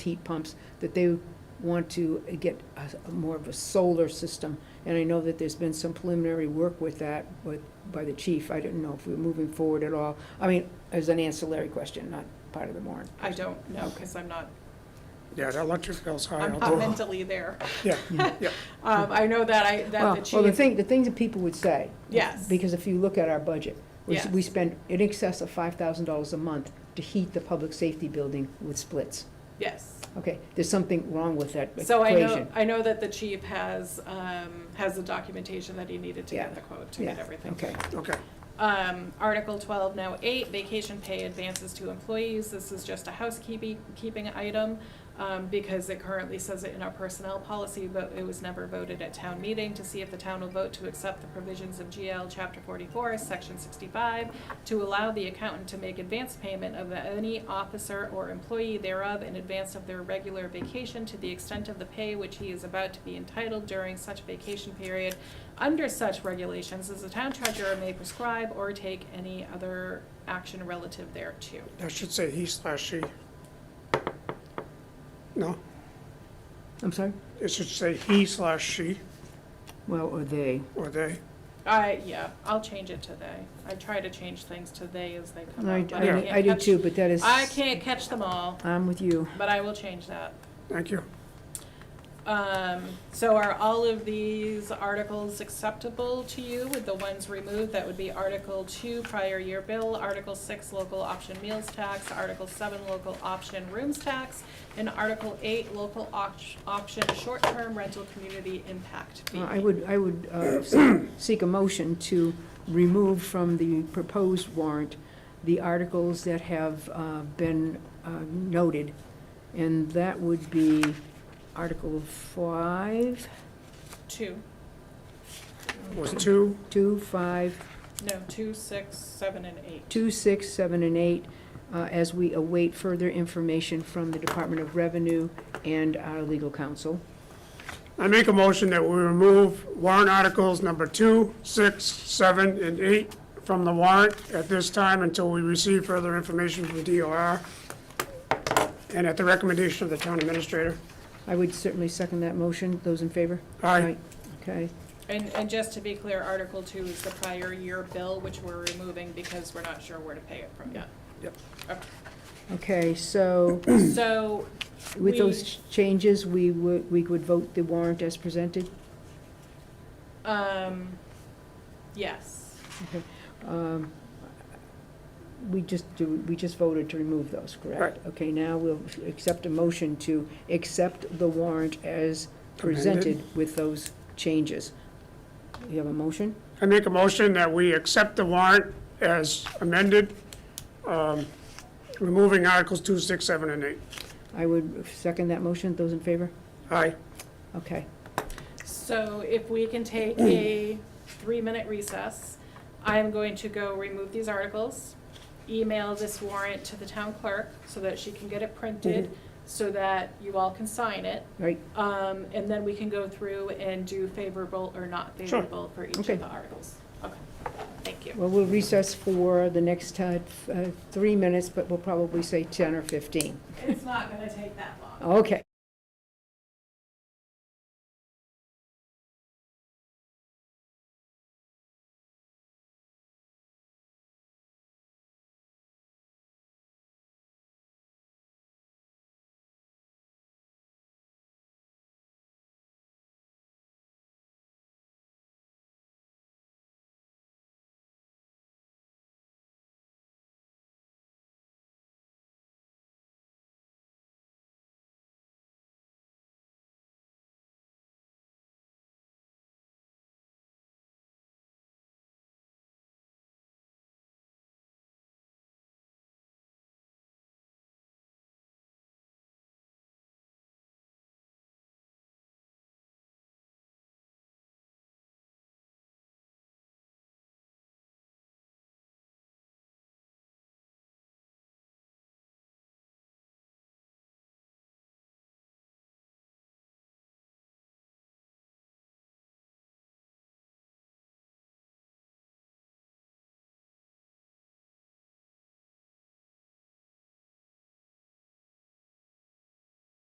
heat pumps, that they want to get a- a more of a solar system. And I know that there's been some preliminary work with that, with, by the chief. I didn't know if we were moving forward at all. I mean, as an ancillary question, not part of the warrant. I don't know, Okay. because I'm not, Yeah, the electric bill's high. I'm I'll not do it. mentally there. Yeah, yeah. Um, I know that I, Well, that the well, the chief, thing, the things that people would say. Yes. Because if you look at our budget, we, s- we Yes. spend in excess of five thousand dollars a month to heat the public safety building with splits. yes. Okay, there's something wrong with that equation. So I know, I know that the chief has, um, has the documentation that he needed to Yeah. get the quote, to get Yeah. everything. Okay, Okay, Um, Article twelve, now eight, vacation pay advances to employees. This is just a housekeeping, keeping item, um, because it currently says it in our personnel policy, but it was never voted at town meeting to see if the town will vote to accept the provisions of GL Chapter forty-four, Section sixty-five, to allow the accountant to make advance payment of any officer or employee thereof in advance of their regular vacation to the extent of the pay which he is about to be entitled during such vacation period under such regulations as the town treasurer may prescribe or take any other action relative thereto. that should say he slash she. No, I'm sorry? it should say he slash she Well, or they. or they. I, yeah, I'll change it to they. I try to change things to they as they come I, up, but I I, can't I do catch- too, but that is. I can't catch them all, I'm with you. but I will change that. Thank you. Um, so are all of these articles acceptable to you with the ones removed? That would be Article two, prior year bill, Article six, local option meals tax, Article seven, local option rooms tax, and Article eight, local opt- option short-term rental community impact fee. Uh, I would, I would uh, se- seek a motion to remove from the proposed warrant the articles that have uh, been uh, noted, and that would be Article five, Two, Was two, two, five, no, two, six, seven, and eight. two, six, seven, and eight, uh, as we await further information from the Department of Revenue and our legal counsel. I make a motion that we remove warrant articles number two, six, seven, and eight from the warrant at this time until we receive further information from DOR and at the recommendation of the town administrator. I would certainly second that motion. Those in favor? Aye. Okay. And, and just to be clear, Article two is the prior year bill, which we're removing because we're not sure where to pay it from yet. Yep. Okay, so So with We- those changes, we would, we would vote the warrant as presented? Um, yes. Um, We just, do. we just voted to remove those, correct? Okay, now we'll accept a motion to accept the warrant as presented with those changes. You have a motion? I make a motion that we accept the warrant as amended, um, removing Articles 2, 6, 7, and 8. I would second that motion. Those in favor? Aye. Okay. So if we can take a three-minute recess, I am going to go remove these articles, email this warrant to the town clerk so that she can get it printed, so that you all can sign it. Right, Um, and then we can go through and do favorable or not Sure. favorable for each of Okay. the articles. Okay, thank you. well, we'll recess for the next uh, f- uh, three minutes, but we'll probably say 10 or 15. It's not gonna take that long. Okay.